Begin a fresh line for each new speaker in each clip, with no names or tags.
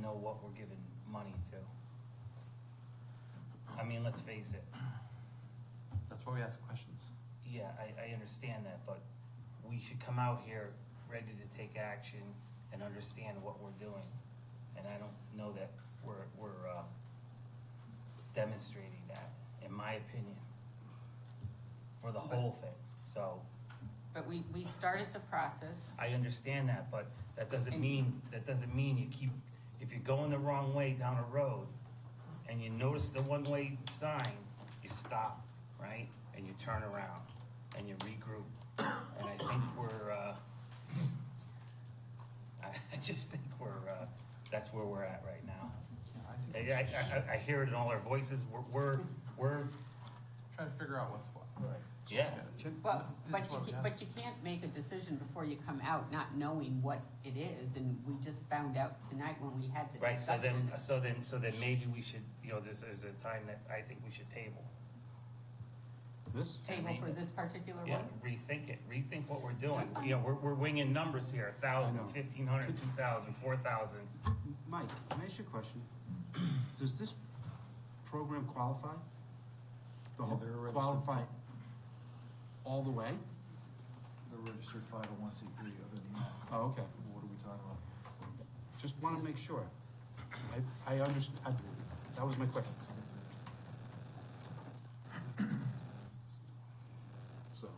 know what we're giving money to. I mean, let's face it,
That's why we ask questions.
yeah, I, I understand that, but we should come out here ready to take action and understand what we're doing. And I don't know that we're, we're, uh, demonstrating that, in my opinion, for the whole thing, so.
But we, we started the process.
I understand that, but that doesn't
And-
mean, that doesn't mean you keep, if you're going the wrong way down a road and you notice the one-way sign, you stop, right? And you turn around and you regroup. And I think we're, uh, I I just think we're, uh, that's where we're at right now.
Yeah, I
I,
think we should
I, I- I hear it in all our voices. We're, we're, we're,
try to figure out what's what.
yeah.
Well, but
That's
you,
what we
ca-
have.
but you can't make a decision before you come out not knowing what it is, and we just found out tonight when we had the
Right, so
discussion.
then, so then, so then maybe we should, you know, there's, there's a time that I think we should table.
This?
Table for this particular
Yeah,
one?
rethink it, rethink what we're doing,
That's fine.
you know, we're, we're winging numbers here, a
I
thousand,
know.
fifteen hundred, two thousand, four thousand.
Mike, can I ask you a question? Does this program qualify? The
Yeah,
whole,
they're registered.
qualify all the way?
They're registered five oh one C three, other than that,
Oh, okay.
what are we talking about?
Just want to make sure. I, I underst I, that was my question. So.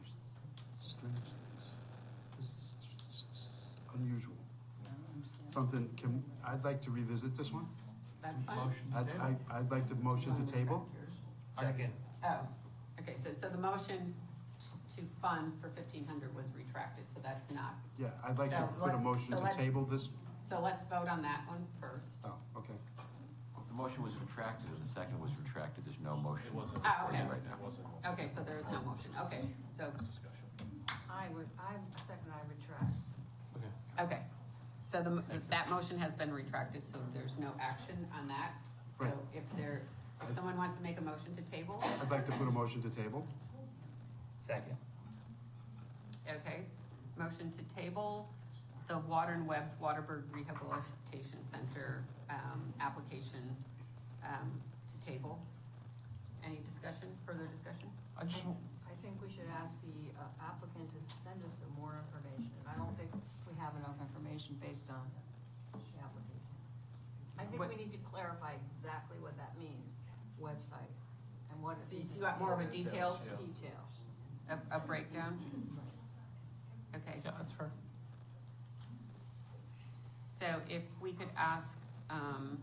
There's Strange things. This is s- s- unusual.
I don't understand.
Something, can, I'd like to revisit this one.
That's fine.
Motion to
I'd,
table.
I- I'd like to motion to table.
Second,
Oh, okay, th- so the motion t- to fund for fifteen hundred was retracted, so that's not,
Yeah, I'd like to
So
put a
let's-
motion
so
to
let's-
table this.
so let's vote on that one first.
Oh, okay.
The motion was retracted, and the second was retracted, there's no motion. It wasn't.
Oh, okay.
Right now.
Okay, so there is no motion, okay, so,
I would, I second, I retract.
okay. So the, m- that motion has been retracted, so there's no action on that. So
Right.
if there, if someone wants to make a motion to table,
I'd like to put a motion to table.
second,
okay, motion to table the Water and Web's Waterburg Rehabilitation Center, um, application, um, to table. Any discussion, further discussion?
I just, want-
I think we should ask the uh, applicant to send us some more information, and I don't think we have enough information based on the application. I think
What-
we need to clarify exactly what that means, website, and what. it
So you so you want more of a
is.
detail,
Detail.
a, a breakdown? Okay.
yeah, that's fair.
So if we could ask um,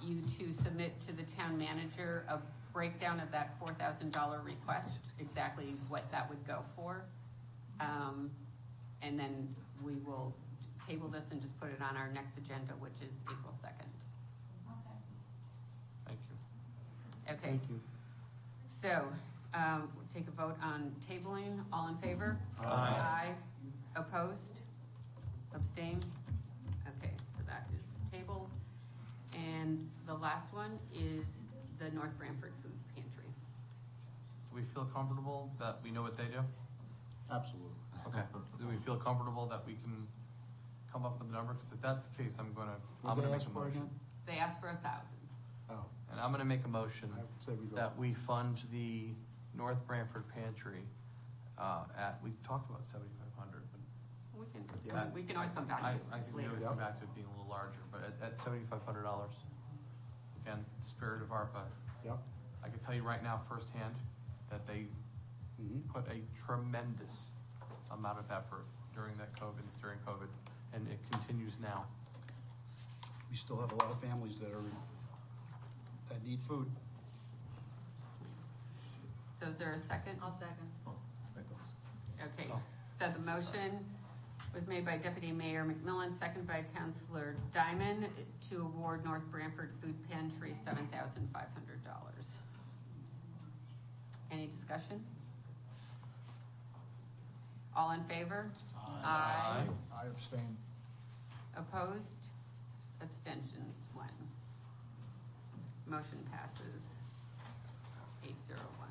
you to submit to the town manager a breakdown of that four thousand dollar request, exactly what that would go for. Um, And then we will table this and just put it on our next agenda, which is April second.
Thank you.
Okay,
you.
so um, we'll take a vote on tabling. All in favor? Aye. Opposed? Abstained? Okay, so that is table. And the last one is the North Branford Food Pantry.
Do we feel comfortable that we know what they do?
Absolutely.
Okay. Do we feel comfortable that we can come up with a number? Because if that's the case, I'm gonna, I'm gonna make a motion.
They asked for a thousand.
Oh,
And I'm gonna make a motion
I say we go.
that we fund the North Branford Pantry, uh, at, we talked about seventy-five hundred, but
We can, I
Yeah.
mean, we can always come back to
I,
it
I think we
later.
would
Later.
come back to it being a little larger, but at, at seventy-five hundred dollars. Again, spirit of ARPA,
Yep.
I can tell you right now firsthand that they
Mhm.
put a tremendous amount of effort during that COVID, during COVID, and it continues now.
We still have a lot of families that are, that need food.
So is there a second?
I'll second.
Okay,
Oh.
so the motion was made by Deputy Mayor McMillan, second by Councilor Diamond, to award North Branford Food Pantry seven thousand five hundred dollars. Any discussion? All in favor? Aye.
I abstain.
Opposed? Abstentions, one. Motion passes eight zero one.